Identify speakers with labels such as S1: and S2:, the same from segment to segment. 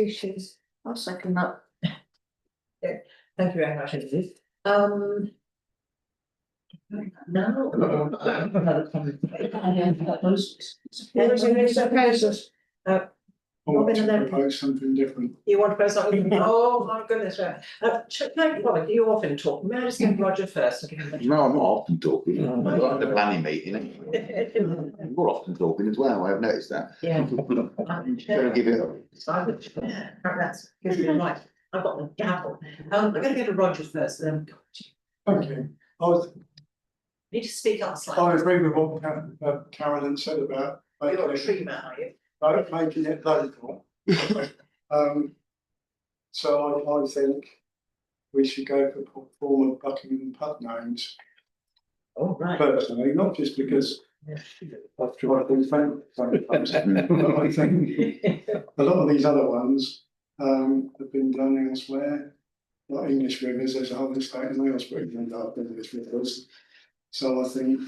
S1: species. I'll second that.
S2: Thank you very much indeed.
S1: Um,
S2: No. Another comment.
S1: there is a list of proposals.
S3: I want
S1: Robin
S3: to
S1: Lennon.
S3: propose something different.
S2: Oh, You want to press something? Oh, my goodness, right. Uh, Chuck, thank you, Robert, you often talk. May I just give Roger first? and give him the-
S4: No, I'm not often talking, I'm not at the planning meeting, anyway. I'm more often talking as well, I've noticed that.
S2: Yeah.
S4: I'm gonna give it up.
S2: I would, yeah, that's, gives me right. I've got the gavel. Um, we're gonna go to Roger first, then.
S3: Okay, I was,
S2: Need to speak up
S3: I
S2: slightly.
S3: agree with what Ca- uh, Carolyn said about.
S2: You're a
S3: making-
S2: tree man, are you?
S3: about making it local. Um, so I, I think we should go for p- former Buckingham pub names
S2: Oh, right.
S3: personally, not just because I've tried them fan- sometimes. But I think a lot of these other ones, um, have been done elsewhere. Like English rivers, there's a whole estate in Wales, but even dark English rivers. So I think,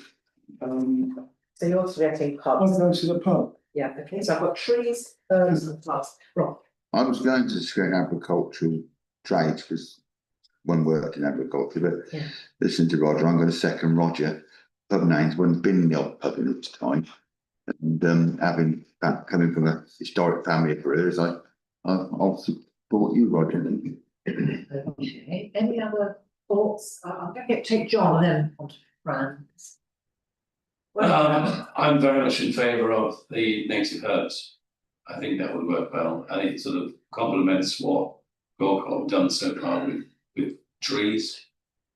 S3: um,
S2: So you're suggesting
S3: I'll
S2: pubs?
S3: go to the pub.
S2: Yeah, okay, so I've got trees, herbs and plants. Right,
S4: I was going to screen agricultural trades, because one worked in agriculture, but
S2: Yeah.
S4: listen to Roger, I'm gonna second Roger. Pub names, one's been in the old pub in its time. And um, having, fa- coming from a historic family of brewers, I, I, I'll support you, Roger.
S2: okay. Any other thoughts? I- I'm gonna get, take John and then on to Fran.
S5: Um, I'm very much in favour of the native herbs. I think that would work well, and it sort of complements what Gorkha have done so far with, with trees.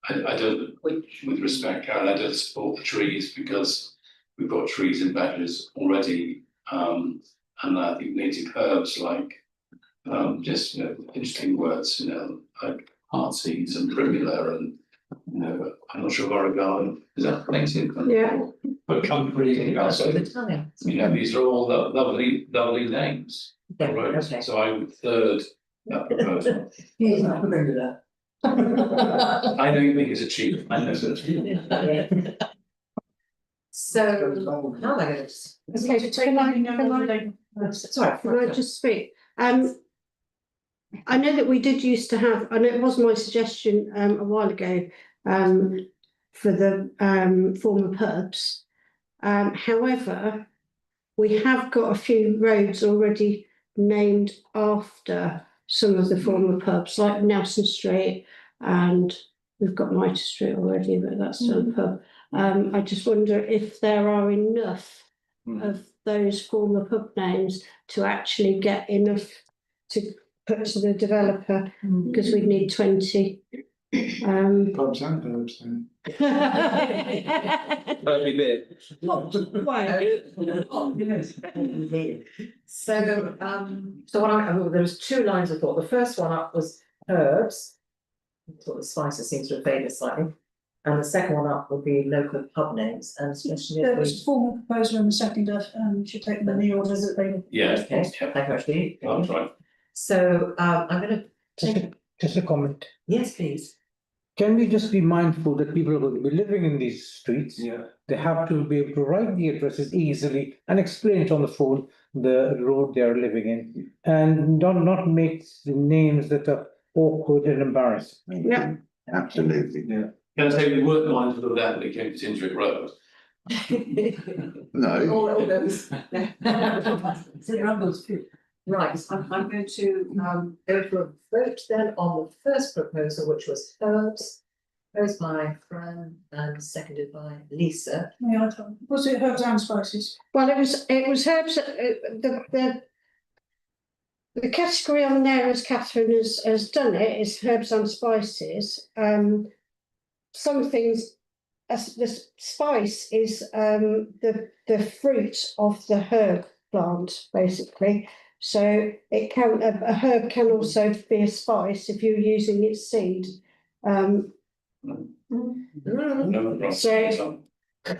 S5: I, I don't, with respect, Karen, I don't support the trees because we've got trees in badges already. Um, and I think native herbs like, um, just, you know, interesting words, you know, like heartsease and primula and, you know, I'm not sure origami, is that native?
S1: Yeah.
S5: But comforting,
S2: So the
S5: also,
S2: time.
S5: you know, these are all lo- lovely, lovely names.
S2: Yeah,
S5: Right,
S2: okay.
S5: So I would third that proposal.
S2: Yeah, I remember that.
S5: I don't think it's a cheap, I know it's a cheap.
S2: So,
S3: Go
S2: now they're gonna just.
S1: Okay, so can I, can
S2: Sorry.
S1: I, can I just speak? Um, I know that we did used to have, and it was my suggestion, um, a while ago, um, for the, um, former pubs. Um, however, we have got a few roads already named after some of the former pubs, like Nelson Street and we've got Mitre Street already, but that's still a pub. Um, I just wonder if there are enough of those former pub names to actually get enough to put to the developer, because we'd need twenty. Um,
S3: Pubs and herbs then.
S6: Only bit.
S1: why?
S2: So, um, so what I, oh, there was two lines of thought. The first one up was herbs. I Thought the spices seems to have faded slightly. And the second one up would be local pub names and especially.
S7: There was a formal proposal and the second, um, should take them in the order that they.
S5: Yeah,
S2: Okay, thank you actually.
S5: that's right.
S2: So, um, I'm gonna,
S6: Just a, just a comment.
S2: yes, please.
S6: Can we just be mindful that people are going to be living in these streets?
S5: Yeah.
S6: They have to be able to write the addresses easily and explain it on the phone, the road they are living in. And not, not make the names that are awkward and embarrassing.
S1: Yeah.
S4: Absolutely.
S5: Can I say we weren't mindful of that when it came to Tinsbury Road?
S4: No,
S2: All, all those. Right, I'm, I'm going to, um, go for a vote then on the first proposal, which was herbs. Proposed by Fran and seconded by Lisa.
S7: May I tell? Was it herbs and spices?
S1: Well, it was, it was herbs, uh, the, the. The category on there, as Catherine has, has done it, is herbs and spices, um. Some things, as the s- spice is, um, the, the fruit of the herb plant, basically. So it can, a a herb can also be a spice if you're using its seed. Um,
S5: No, right.
S1: So-
S5: So,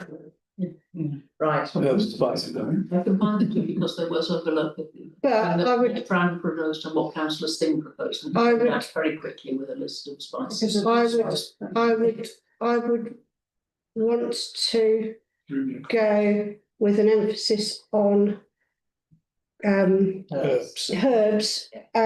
S2: Right,
S3: Herbs spices, though.
S8: I can find it because there was overlap. of them.
S1: but
S8: And
S1: I would,
S8: that Fran proposed and what councillor Singh proposed. and
S1: I would-
S8: that's Very quickly with a list of
S7: Because
S8: spices.
S7: of
S1: I
S7: the
S1: would-
S7: spice.
S1: I would, I would want to.
S3: Julia.
S1: go with an emphasis on um,
S2: Herbs.
S1: herbs